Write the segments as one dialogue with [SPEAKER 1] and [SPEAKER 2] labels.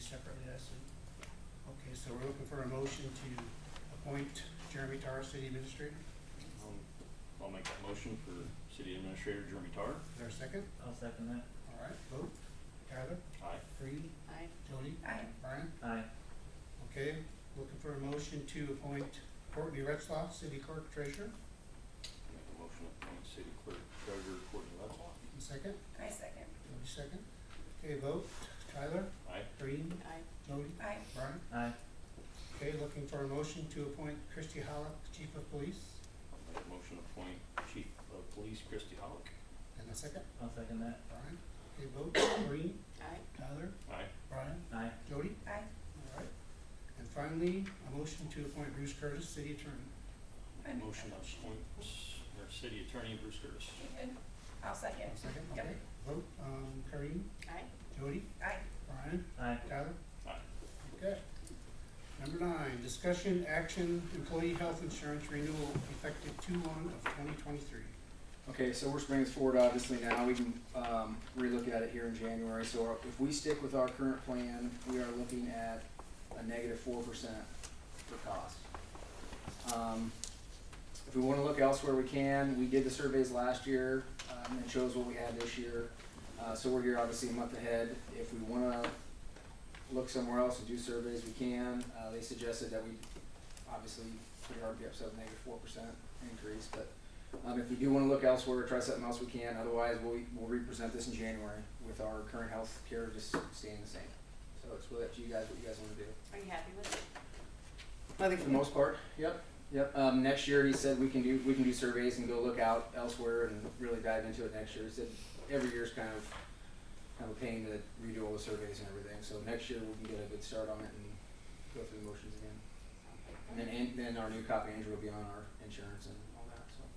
[SPEAKER 1] separately, I see. Okay, so we're looking for a motion to appoint Jeremy Tarr, city administrator.
[SPEAKER 2] Um, I'll- I'll make that motion for City Administrator Jeremy Tarr.
[SPEAKER 1] Is there a second?
[SPEAKER 3] I'll second that.
[SPEAKER 1] All right, vote. Tyler,
[SPEAKER 2] Aye.
[SPEAKER 1] Reed,
[SPEAKER 4] Aye.
[SPEAKER 1] Jody,
[SPEAKER 4] Aye.
[SPEAKER 1] Brian.
[SPEAKER 3] Aye.
[SPEAKER 1] Okay, looking for a motion to appoint Courtney Retzloff, city clerk treasurer.
[SPEAKER 2] Make a motion to appoint City Clerk Treasurer Courtney Ledlaw.
[SPEAKER 1] And Second,
[SPEAKER 4] I second.
[SPEAKER 1] Jody second. Okay, vote. Tyler,
[SPEAKER 2] Aye.
[SPEAKER 1] Reed,
[SPEAKER 4] Aye.
[SPEAKER 1] Jody,
[SPEAKER 4] Aye.
[SPEAKER 1] Brian.
[SPEAKER 3] Aye.
[SPEAKER 1] Okay, looking for a motion to appoint Christy Hollick, chief of police.
[SPEAKER 2] I'll make a motion to appoint Chief of Police Christie Hollick.
[SPEAKER 1] And a second,
[SPEAKER 3] I'll second that.
[SPEAKER 1] Brian. Okay, vote. Reed,
[SPEAKER 4] Aye.
[SPEAKER 1] Tyler,
[SPEAKER 2] Aye.
[SPEAKER 1] Brian,
[SPEAKER 3] Aye.
[SPEAKER 1] Jody.
[SPEAKER 4] Aye.
[SPEAKER 1] All right. And finally, a motion to appoint Bruce Curtis, city attorney.
[SPEAKER 4] I make
[SPEAKER 2] Motion to
[SPEAKER 4] that
[SPEAKER 2] appoint our City Attorney Bruce Curtis.
[SPEAKER 4] Even. I'll second.
[SPEAKER 1] One second,
[SPEAKER 4] Yep.
[SPEAKER 1] okay. Vote, um, Kareem,
[SPEAKER 4] Aye.
[SPEAKER 1] Jody,
[SPEAKER 4] Aye.
[SPEAKER 1] Brian,
[SPEAKER 3] Aye.
[SPEAKER 1] Tyler.
[SPEAKER 2] Aye.
[SPEAKER 1] Okay. Number nine, discussion, action, employee health insurance renewal effective two one of twenty twenty-three.
[SPEAKER 5] Okay, so we're bringing this forward obviously now, we can, um, relook at it here in January, so if we stick with our current plan, we are looking at a negative four percent for cost. Um, if we wanna look elsewhere, we can, we did the surveys last year, um, and shows what we had this year, uh, so we're here obviously a month ahead, if we wanna look somewhere else and do surveys, we can, uh, they suggested that we obviously put our RPFs up negative four percent increase, but um, if we do wanna look elsewhere, try something else, we can, otherwise, we'll, we'll represent this in January with our current health care just staying the same. So it's really up to you guys, what you guys wanna do.
[SPEAKER 4] Are you happy with it?
[SPEAKER 5] I think for the most part, yep, yep, um, next year, he said we can do, we can do surveys and go look out elsewhere and really dive into it next year, he said every year's kind of, kind of a pain to redo all the surveys and everything, so next year, we can get a good start on it and go through the motions again. And then, and then our new copy, Andrew, will be on our insurance and all that, so.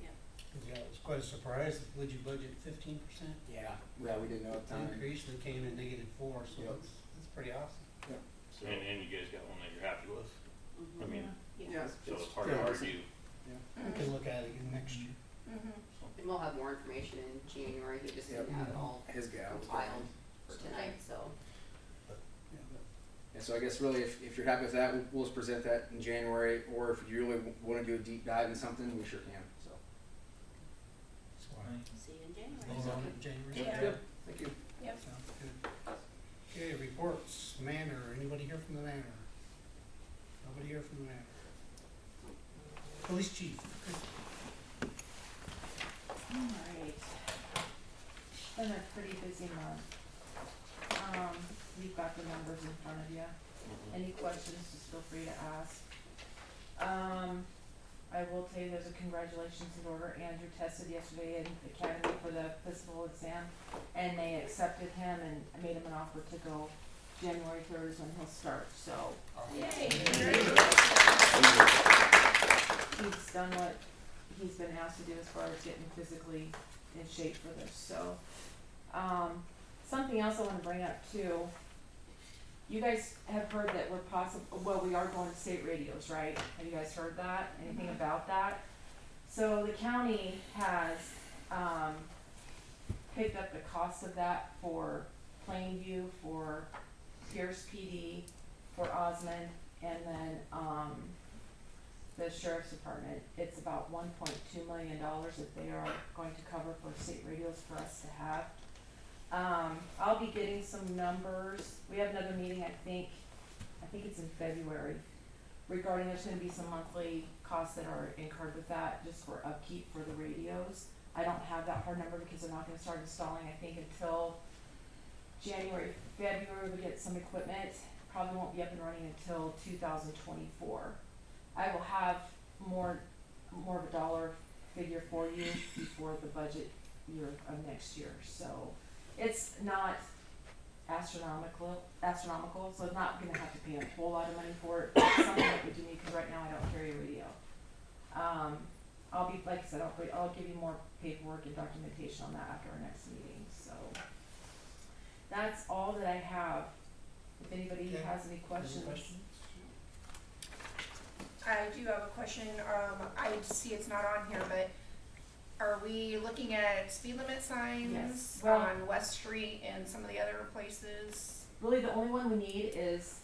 [SPEAKER 1] Yeah, it was quite a surprise. Would you budget fifteen percent
[SPEAKER 5] Yeah. Yeah, we didn't know at the time.
[SPEAKER 1] increase and it came in negative four, so
[SPEAKER 5] Yep.
[SPEAKER 1] that's, that's pretty awesome.
[SPEAKER 5] So-
[SPEAKER 2] And, and you guys got one that you're happy with, I
[SPEAKER 4] Mhm.
[SPEAKER 2] mean,
[SPEAKER 4] Yeah.
[SPEAKER 2] so it's hard to
[SPEAKER 1] Yeah.
[SPEAKER 2] argue.
[SPEAKER 1] We can look at it again next year.
[SPEAKER 4] Mm-hmm.
[SPEAKER 6] And we'll have more information in January, he just didn't
[SPEAKER 5] Yep.
[SPEAKER 6] have it all
[SPEAKER 5] His gal.
[SPEAKER 6] compiled for tonight, so.
[SPEAKER 4] Mm-hmm.
[SPEAKER 1] Yeah, but-
[SPEAKER 5] And so I guess really, if, if you're happy with that, we'll, we'll just present that in January, or if you really want to do a deep dive in something, we sure can, so.
[SPEAKER 1] that's
[SPEAKER 3] Aye.
[SPEAKER 1] why.
[SPEAKER 4] See you in January.
[SPEAKER 1] Vote on it January.
[SPEAKER 4] Yep.
[SPEAKER 1] second.
[SPEAKER 5] Yep. Thank you.
[SPEAKER 4] Yep.
[SPEAKER 1] Sounds good. Okay, reports, manor, anybody here from the manor? Nobody here from the manor? Police chief,
[SPEAKER 7] Alright. It's Been a pretty busy month. Um, we've got the numbers in front of you. Any questions, just feel free to ask. Um, I will tell you, there's a congratulations in order. Andrew tested yesterday in the academy for the physical exam, and they accepted him and made him an offer to go January third is when he'll start, so. he's done what he's been asked to do as far as getting physically in shape for this, so. Um, something else I wanna bring up too. You guys have heard that we're possible, well, we are going to state radios, right? Have you guys heard that? Anything about that? So the county has, um, picked up the cost of that for Plainview, for Pierce PD, for Osmond, and then, um, the sheriff's department, it's about one point two million dollars that they are going to cover for state radios for us to have. Um, I'll be getting some numbers, we have another meeting, I think, I think it's in February, regarding there's gonna be some monthly costs that are incurred with that, just for upkeep for the radios. I don't have that hard number because they're not gonna start installing, I think, until January, February, we get some equipment, probably won't be up and running until two thousand twenty-four. I will have more, more of a dollar figure for you before the budget year of next year, so. It's not astronomical, astronomical, so I'm not gonna have to pay a whole lot of money for it, but it's something that we do need, cause right now I don't carry a radio. Um, I'll be, like I said, I'll, bring- I'll give you more paperwork and documentation on that after our next meeting, so. That's all that I have, if anybody
[SPEAKER 1] Okay.
[SPEAKER 7] has any
[SPEAKER 1] any
[SPEAKER 7] questions.
[SPEAKER 1] questions?
[SPEAKER 4] I do have a question, um, I see it's not on here, but are we looking at speed limit signs
[SPEAKER 7] Yes.
[SPEAKER 4] on West Street and some of the other places?
[SPEAKER 7] really the only one we need is